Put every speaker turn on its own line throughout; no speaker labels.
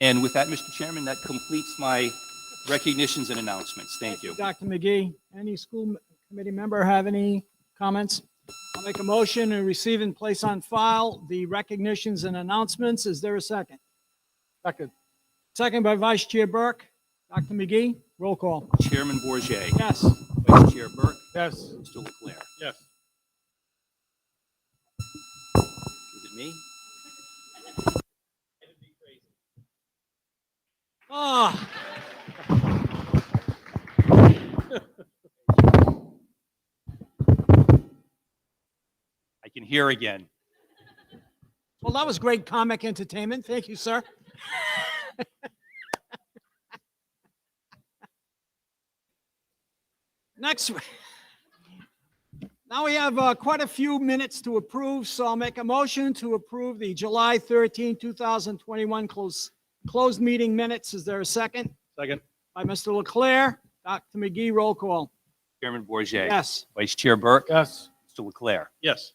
And with that, Mr. Chairman, that completes my recognitions and announcements. Thank you.
Dr. McGee, any school m- committee member have any comments? I'll make a motion to receive and place on file the recognitions and announcements. Is there a second?
Second.
Second by Vice Chair Burke. Dr. McGee, roll call.
Chairman Bourget,
Yes.
Vice Chair Burke,
Yes.
Mr. Leclerc.
Yes.
Is it me?
Ah.
I can hear again.
Well, that was great comic entertainment. Thank you, sir. Next. w- Now we have uh, quite a few minutes to approve, so I'll make a motion to approve the July 13, 2021 close, closed meeting minutes. Is there a second?
Second.
By Mr. Leclerc, Dr. McGee, roll call.
Chairman Bourget,
Yes.
Vice Chair Burke,
Yes.
Mr. Leclerc.
Yes.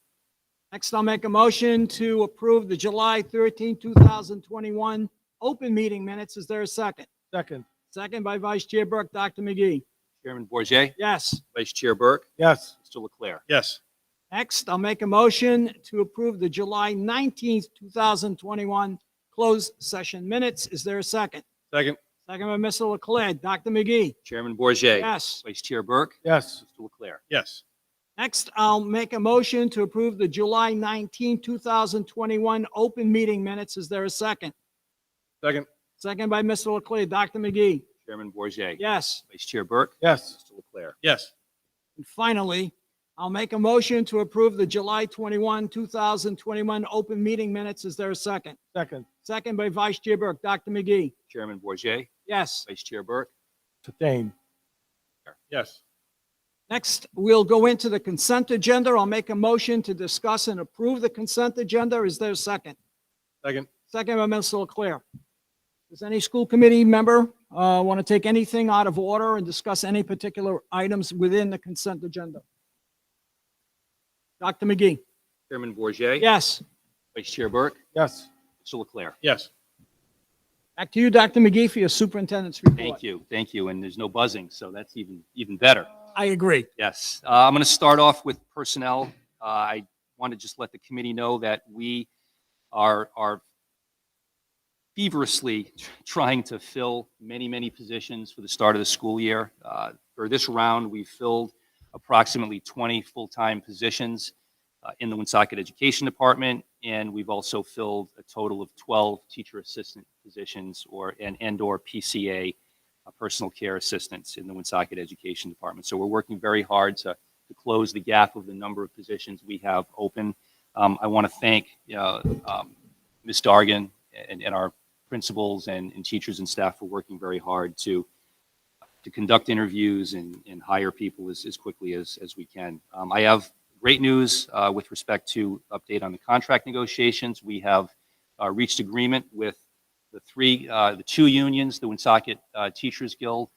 Next, I'll make a motion to approve the July 13, 2021 open meeting minutes. Is there a second?
Second.
Second by Vice Chair Burke, Dr. McGee.
Chairman Bourget,
Yes.
Vice Chair Burke,
Yes.
Mr. Leclerc.
Yes.
Next, I'll make a motion to approve the July 19th, 2021 closed session minutes. Is there a second?
Second.
Second by Mr. Leclerc, Dr. McGee.
Chairman Bourget,
Yes.
Vice Chair Burke,
Yes.
Mr. Leclerc.
Yes.
Next, I'll make a motion to approve the July 19, 2021 open meeting minutes. Is there a second?
Second.
Second by Mr. Leclerc, Dr. McGee.
Chairman Bourget,
Yes.
Vice Chair Burke,
Yes.
Mr. Leclerc.
Yes.
And finally, I'll make a motion to approve the July 21, 2021 open meeting minutes. Is there a second?
Second.
Second by Vice Chair Burke. Dr. McGee?
Chairman Bourget,
Yes.
Vice Chair Burke.
Sustain. Yes.
Next, we'll go into the consent agenda. I'll make a motion to discuss and approve the consent agenda. Is there a second?
Second.
Second by Mr. Leclerc. Does any school committee member want to take anything out of order and discuss any particular items within the consent agenda? Dr. McGee?
Chairman Bourget,
Yes.
Vice Chair Burke,
Yes.
Mr. Leclerc.
Yes.
Back to you, Dr. McGee, for your superintendent's report.
Thank you, thank you. And there's no buzzing, so that's even, even better.
I agree.
Yes, Uh, I'm going to start off with personnel. Uh, I want to just let the committee know that we are are feverishly trying to fill many, many positions for the start of the school year. Uh, For this round, we filled approximately 20 full-time positions uh, in the Woonsocket Education Department, and we've also filled a total of 12 teacher assistant positions or, and and/or PCA uh, personal care assistants in the Woonsocket Education Department. So we're working very hard to, to close the gap of the number of positions we have open. Um, I want to thank uh, um, Ms. Dargan and, and our principals and, and teachers and staff for working very hard to to conduct interviews and, and hire people as, as quickly as, as we can. Um, I have great news uh, with respect to update on the contract negotiations. We have uh, reached agreement with the three, uh, the two unions, the Woonsocket uh, Teachers Guild,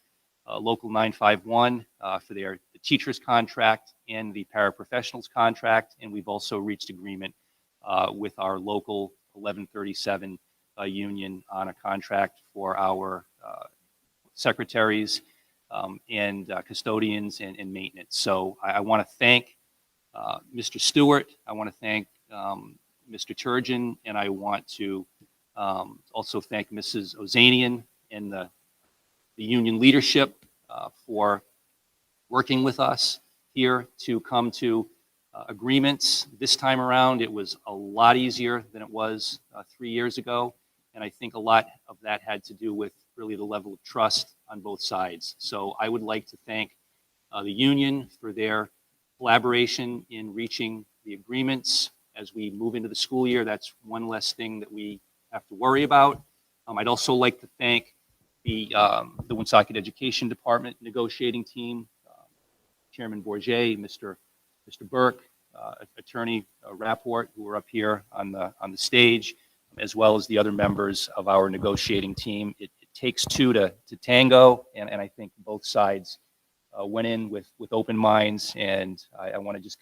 uh, Local 951, uh, for their the teachers contract and the paraprofessionals contract. And we've also reached agreement uh, with our local 1137 uh, union on a contract for our uh, secretaries um, and uh, custodians and, and maintenance. So I, I want to thank uh, Mr. Stewart. I want to thank um, Mr. Turgeon, and I want to um, also thank Mrs. Ozanian and the, the union leadership uh, for working with us here to come to uh, agreements. This time around, it was a lot easier than it was uh, three years ago. And I think a lot of that had to do with really the level of trust on both sides. So I would like to thank uh, the union for their collaboration in reaching the agreements. As we move into the school year, that's one less thing that we have to worry about. Um, I'd also like to thank the, um, the Woonsocket Education Department negotiating team, uh, Chairman Bourget, Mr. Mr. Burke, uh, Attorney uh, Rapport, who are up here on the, on the stage, as well as the other members of our negotiating team. It it takes two to, to tango, and, and I think both sides uh, went in with, with open minds, and I, I want to just